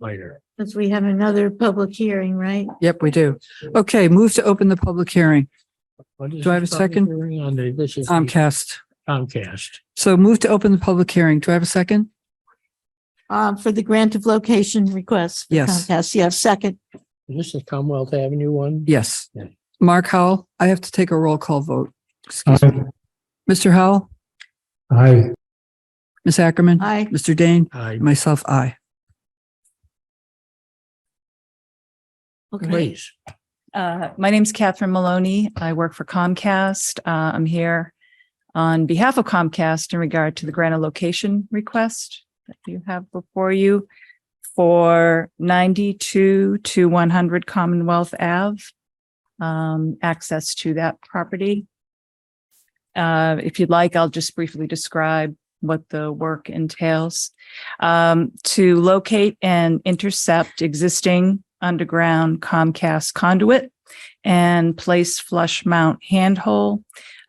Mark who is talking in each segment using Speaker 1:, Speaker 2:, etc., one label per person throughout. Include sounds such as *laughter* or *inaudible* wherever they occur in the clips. Speaker 1: later.
Speaker 2: Because we have another public hearing, right?
Speaker 3: Yep, we do. Okay, move to open the public hearing.
Speaker 1: What is
Speaker 3: Do I have
Speaker 1: this
Speaker 3: a
Speaker 1: public
Speaker 3: second?
Speaker 1: hearing On the, this is the
Speaker 3: Comcast.
Speaker 1: Comcast.
Speaker 3: So move to open the public hearing. Do I have a second?
Speaker 2: Um, for the grant of location request. for
Speaker 3: Yes.
Speaker 2: Comcast, yes, second.
Speaker 1: This is Commonwealth Avenue one?
Speaker 3: Yes.
Speaker 1: Yeah.
Speaker 3: Mark Howell, I have to take a roll call vote. Excuse me. Mr. Howell,
Speaker 4: Aye.
Speaker 3: Ms. Ackerman,
Speaker 2: Aye.
Speaker 3: Mr. Dane,
Speaker 1: I,
Speaker 3: myself, I.
Speaker 2: Okay.
Speaker 1: please.
Speaker 5: Uh, My name's Catherine Maloney. I work for Comcast. Uh, I'm here on behalf of Comcast in regard to the grant of location request that you have before you for 92 to 100 Commonwealth Ave. um, Access to that property. Uh, If you'd like, I'll just briefly describe what the work entails. Um, To locate and intercept existing underground Comcast conduit and place flush mount handhole.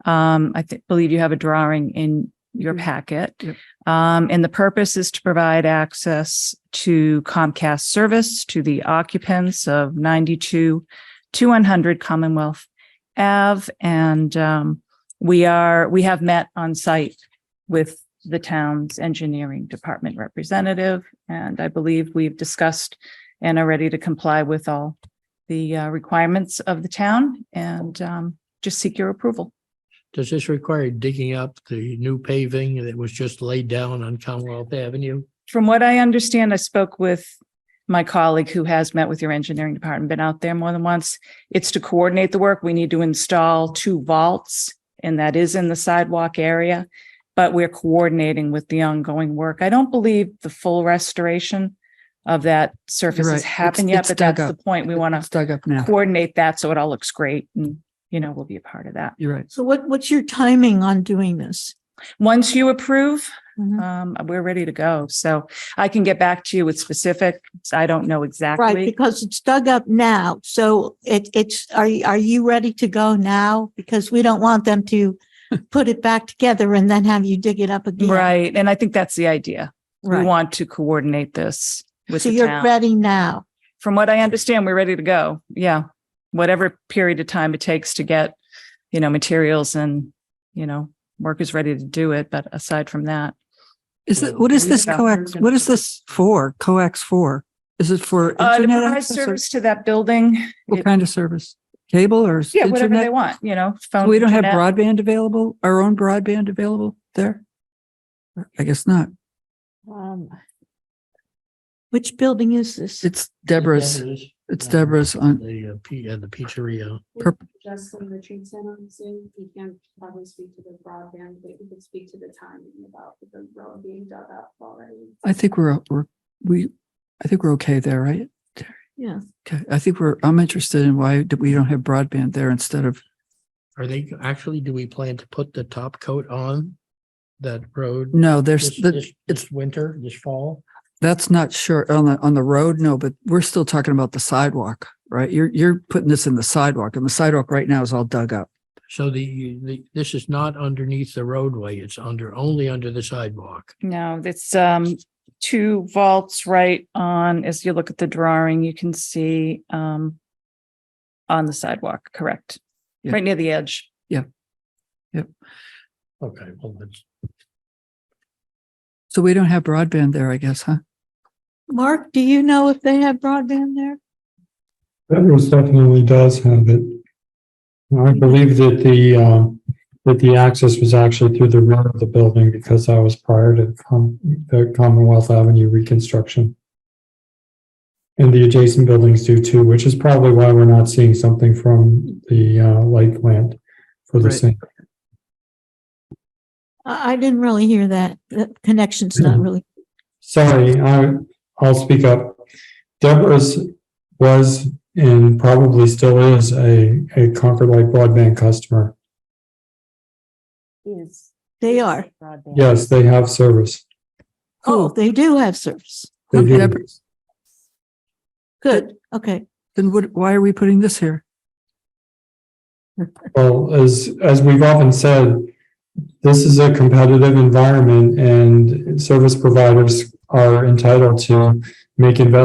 Speaker 5: Um, I thi- believe you have a drawing in your packet.
Speaker 3: Yep.
Speaker 5: Um, and the purpose is to provide access to Comcast service to the occupants of ninety-two to one hundred Commonwealth Ave. And, um, we are, we have met on site with the town's engineering department representative. And I believe we've discussed and are ready to comply with all the uh, requirements of the town and um, just seek your approval.
Speaker 1: Does this require digging up the new paving that was just laid down on Commonwealth Avenue?
Speaker 5: From what I understand, I spoke with my colleague who has met with your engineering department, been out there more than once. It's to coordinate the work. We need to install two vaults and that is in the sidewalk area. But we're coordinating with the ongoing work. I don't believe the full restoration of that surface
Speaker 3: right.
Speaker 5: has
Speaker 3: It's-
Speaker 5: happened yet,
Speaker 3: it's
Speaker 5: but
Speaker 3: dug
Speaker 5: that's the
Speaker 3: up.
Speaker 5: point. We want to
Speaker 3: It's dug up now.
Speaker 5: coordinate that so it all looks great and, you know, we'll be a part of that.
Speaker 3: You're right.
Speaker 2: So what, what's your timing on doing this?
Speaker 5: Once you approve,
Speaker 2: Mhm.
Speaker 5: um, we're ready to go. So I can get back to you with specific. I don't know
Speaker 2: Right,
Speaker 5: exactly.
Speaker 2: because it's dug up now. So it, it's, are, you- are you ready to go now? Because we don't want them
Speaker 5: *laughs*
Speaker 2: to put it back together and then have you dig it up again.
Speaker 5: Right. And I think that's the idea. We
Speaker 2: Right.
Speaker 5: want to coordinate this with
Speaker 2: So
Speaker 5: the
Speaker 2: you're
Speaker 5: town.
Speaker 2: ready now.
Speaker 5: From what I understand, we're ready to go. Yeah. Whatever period of time it takes to get, you know, materials and, you know, workers ready to do it. But aside from that,
Speaker 3: Is it, what is this coax? What is this for? Coax for? Is it for
Speaker 5: uh, to
Speaker 3: internet
Speaker 5: provide
Speaker 3: access or
Speaker 5: service to that building.
Speaker 3: what kind of service? Cable or s-
Speaker 5: Yeah, whatever they
Speaker 3: internet?
Speaker 5: want, you know, phone.
Speaker 3: We don't have
Speaker 5: internet.
Speaker 3: broadband available, our own broadband available there? I guess not.
Speaker 2: Which building is this?
Speaker 3: It's Deborah's, it's Deborah's on,
Speaker 1: The, uh, P- uh, the pizzeria.
Speaker 6: Justin Richardson on Zoom, he can probably speak to the broadband, but he can speak to the timing about the road being dug up already.
Speaker 3: I think we're, we're, we, I think we're okay there, right?
Speaker 2: Yeah.
Speaker 3: Okay, I think we're, I'm interested in why do- we don't have broadband there instead of,
Speaker 1: Are they, actually, do we plan to put the top coat on that road?
Speaker 3: no, Mm, there's,
Speaker 1: This,
Speaker 3: the-
Speaker 1: this, this winter, this fall?
Speaker 3: that's not sure on the, on the road, no, but we're still talking about the sidewalk, right? You're, you're putting this in the sidewalk and the sidewalk right now is all dug up.
Speaker 1: So the, the, this is not underneath the roadway. It's under, only under the sidewalk.
Speaker 5: No, it's um two vaults right on, as you look at the drawing, you can see um on the sidewalk, correct?
Speaker 3: Yeah.
Speaker 5: Right near the edge.
Speaker 1: Okay, well, that's,
Speaker 3: So we don't have broadband there, I guess, huh?
Speaker 2: Mark, do you know if they have broadband there?
Speaker 4: Bedrooms definitely does have it. I believe that the, uh, that the access was actually through the rear of the building because that was prior to Com- the Commonwealth Avenue reconstruction. And the adjacent buildings do too, which is probably why we're not seeing something from the, uh, light plant for the
Speaker 3: Right.
Speaker 4: same.
Speaker 2: I, I didn't really hear that. The connection's not really.
Speaker 4: Sorry, I, I'll speak up. Deborah's was and probably still is a, a Concord Light broadband customer.
Speaker 6: Is.
Speaker 2: They are.
Speaker 4: Yes, they have service.
Speaker 2: Oh,
Speaker 3: Cool.
Speaker 2: they do have service.
Speaker 4: They do.
Speaker 3: Deborah-
Speaker 2: Good. Okay.
Speaker 3: Then what, why are we putting this here?
Speaker 4: Well, as, as we've often said, this is a competitive environment and service providers are entitled to make investments